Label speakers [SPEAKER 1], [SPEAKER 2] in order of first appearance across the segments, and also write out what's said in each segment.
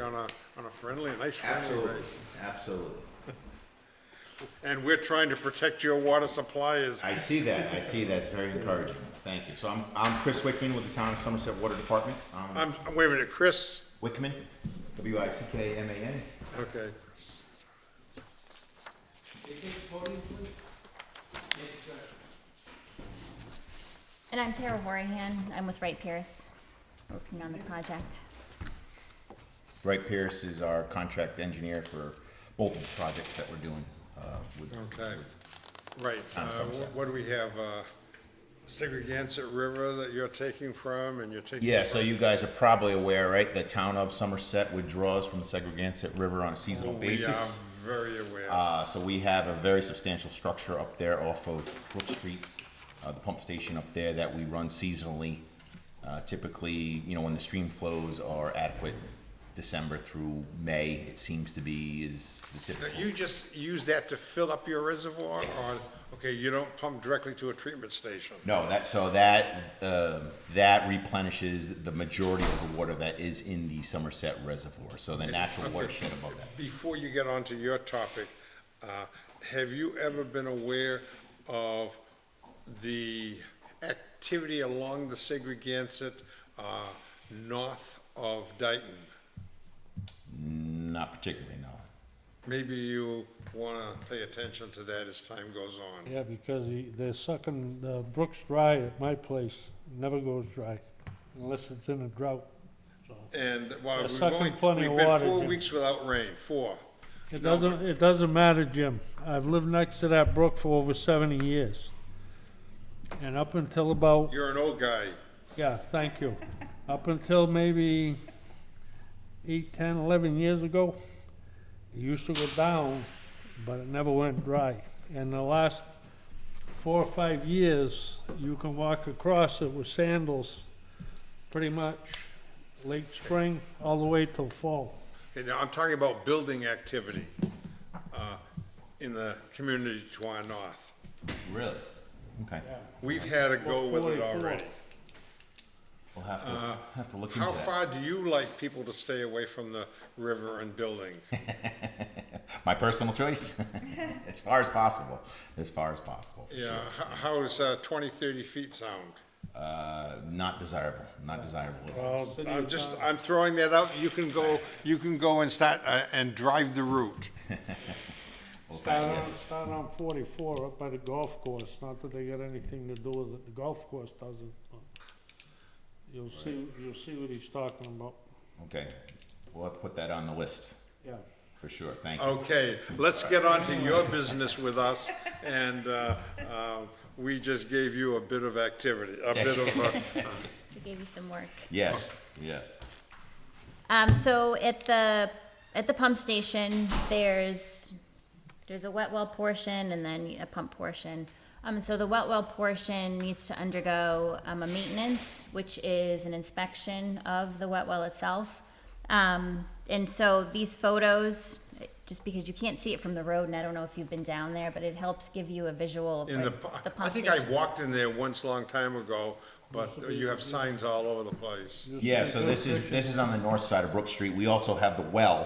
[SPEAKER 1] on a, on a friendly, a nice friendly
[SPEAKER 2] Absolutely,
[SPEAKER 1] basis.
[SPEAKER 2] absolutely.
[SPEAKER 1] And we're trying to protect your water supply is,
[SPEAKER 2] I see that, I see that, it's very encouraging, thank you. So I'm, I'm Chris Wickman with the Town of Somerset Water Department. Um,
[SPEAKER 1] I'm, wait a minute, Chris,
[SPEAKER 2] Wickman, W-I-C-K-M-A-N.
[SPEAKER 1] okay.
[SPEAKER 3] And I'm Tara Horahan. I'm with Wright Pierce, working on the project.
[SPEAKER 2] Wright Pierce is our contract engineer for multiple projects that we're doing, uh, with.
[SPEAKER 1] Okay, right, uh,
[SPEAKER 2] On Somerset.
[SPEAKER 1] what do we have, uh, Segregansett River that you're taking from, and you're taking.
[SPEAKER 2] Yeah, so you guys are probably aware, right, the town of Somerset withdraws from the Segregansett River on a seasonal
[SPEAKER 1] We
[SPEAKER 2] basis.
[SPEAKER 1] are very aware.
[SPEAKER 2] Uh, so we have a very substantial structure up there off of Brook Street, uh, the pump station up there that we run seasonally. Uh, typically, you know, when the stream flows are adequate, December through May, it seems to be is the
[SPEAKER 1] Now,
[SPEAKER 2] typical.
[SPEAKER 1] You just use that to fill up your reservoir, or,
[SPEAKER 2] Yes.
[SPEAKER 1] okay, you don't pump directly to a treatment station?
[SPEAKER 2] No, that, so that, uh, that replenishes the majority of the water that is in the Somerset Reservoir, so the natural
[SPEAKER 1] okay.
[SPEAKER 2] watershed above that.
[SPEAKER 1] Before you get on to your topic, uh, have you ever been aware of the activity along the Segregansett, uh, north of Dayton?
[SPEAKER 2] Not particularly, no.
[SPEAKER 1] Maybe you wanna pay attention to that as time goes on.
[SPEAKER 4] Yeah, because he- they're sucking, uh, Brooks dry at my place, never goes dry unless it's in a drought.
[SPEAKER 1] And while
[SPEAKER 4] They're
[SPEAKER 1] we've
[SPEAKER 4] sucking
[SPEAKER 1] only,
[SPEAKER 4] plenty
[SPEAKER 1] we've
[SPEAKER 4] of
[SPEAKER 1] been
[SPEAKER 4] water,
[SPEAKER 1] four
[SPEAKER 4] Jim.
[SPEAKER 1] weeks without rain, four.
[SPEAKER 4] It
[SPEAKER 1] No,
[SPEAKER 4] doesn't, it doesn't matter, Jim. I've lived next to that brook for over seventy years. And up until about,
[SPEAKER 1] You're an old guy.
[SPEAKER 4] yeah, thank you. Up until maybe eight, ten, eleven years ago, it used to go down, but it never went dry. In the last four or five years, you can walk across it with sandals, pretty much, late spring, all the way till fall.
[SPEAKER 1] Okay, now, I'm talking about building activity, uh, in the community to our north.
[SPEAKER 2] Really? Okay,
[SPEAKER 1] We've had a go with it already.
[SPEAKER 2] we'll have to, have to look into
[SPEAKER 1] Uh, How
[SPEAKER 2] that.
[SPEAKER 1] far do you like people to stay away from the river and building?
[SPEAKER 2] my personal choice as far as possible as far as possible for
[SPEAKER 1] Yeah,
[SPEAKER 2] sure.
[SPEAKER 1] h- how does uh, 20, 30 feet sound?
[SPEAKER 2] uh, not desirable not desirable at all.
[SPEAKER 1] Well, I'm just, I'm throwing that out, you can go, you can go and start, uh, and drive the route.
[SPEAKER 2] Well,
[SPEAKER 4] Started
[SPEAKER 2] thank-
[SPEAKER 4] on,
[SPEAKER 2] yes.
[SPEAKER 4] started on forty-four up by the golf course, not that they got anything to do with it, the golf course doesn't. but You'll see, you'll see what he's talking about,
[SPEAKER 2] okay we'll have to put that on the list
[SPEAKER 4] yeah.
[SPEAKER 2] for sure thank
[SPEAKER 1] Oh.
[SPEAKER 2] you
[SPEAKER 1] Okay, let's get on to your business with us, and uh, uh, we just gave you a bit of activity, a bit of, uh,
[SPEAKER 3] We gave you some work.
[SPEAKER 2] yes yes
[SPEAKER 3] Um, so at the, at the pump station, there's, there's a wet well portion and then a pump portion. Um, so the wet well portion needs to undergo, um, a maintenance, which is an inspection of the wet well itself. Um, and so these photos, just because you can't see it from the road, and I don't know if you've been down there, but it helps give you a visual of
[SPEAKER 1] in the,
[SPEAKER 3] what
[SPEAKER 1] pu-
[SPEAKER 3] the pump station.
[SPEAKER 1] I think I walked in there once, long time ago, but you have signs all over the place.
[SPEAKER 2] yeah so this is this is on the north side of brook street we also have the well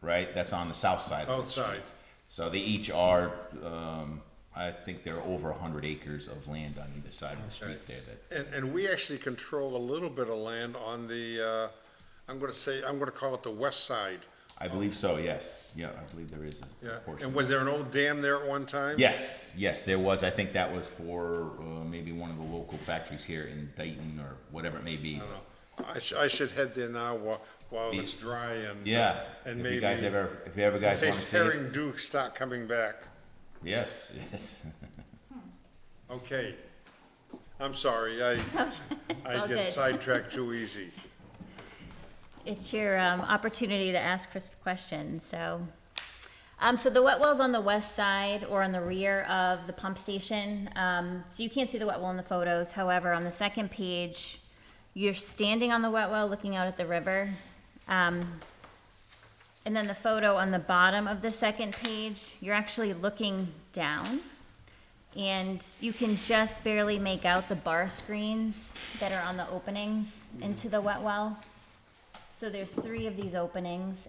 [SPEAKER 2] right that's on the south side of Brook Street.
[SPEAKER 1] Outside.
[SPEAKER 2] so they each are um, i think they're over 100 acres of land on either side of the street there that
[SPEAKER 1] And, and we actually control a little bit of land on the, uh, I'm gonna say, I'm gonna call it the west side.
[SPEAKER 2] i believe so yes yeah i believe there is a
[SPEAKER 1] Yeah,
[SPEAKER 2] portion
[SPEAKER 1] and was there an old dam there at one time?
[SPEAKER 2] Yes, yes, there was. I think that was for uh, maybe one of the local factories here in Dayton or whatever it may be.
[SPEAKER 1] I should, I should head there now while, while it's dry and.
[SPEAKER 2] Yeah.
[SPEAKER 1] And
[SPEAKER 2] if
[SPEAKER 1] maybe.
[SPEAKER 2] you guys ever, if you ever guys want to
[SPEAKER 1] Taste
[SPEAKER 2] see it.
[SPEAKER 1] herring duke start coming back.
[SPEAKER 2] Yes, yes.
[SPEAKER 1] Okay. I'm sorry, I, I
[SPEAKER 3] all
[SPEAKER 1] get
[SPEAKER 3] good.
[SPEAKER 1] sidetracked too easy.
[SPEAKER 3] It's your um, opportunity to ask Chris questions, so. Um, so the wet well's on the west side or on the rear of the pump station. Um, so you can't see the wet well in the photos. However, on the second page, you're standing on the wet well looking out at the river. Um, and then the photo on the bottom of the second page, you're actually looking down. And you can just barely make out the bar screens that are on the openings into the wet well. So there's three of these openings,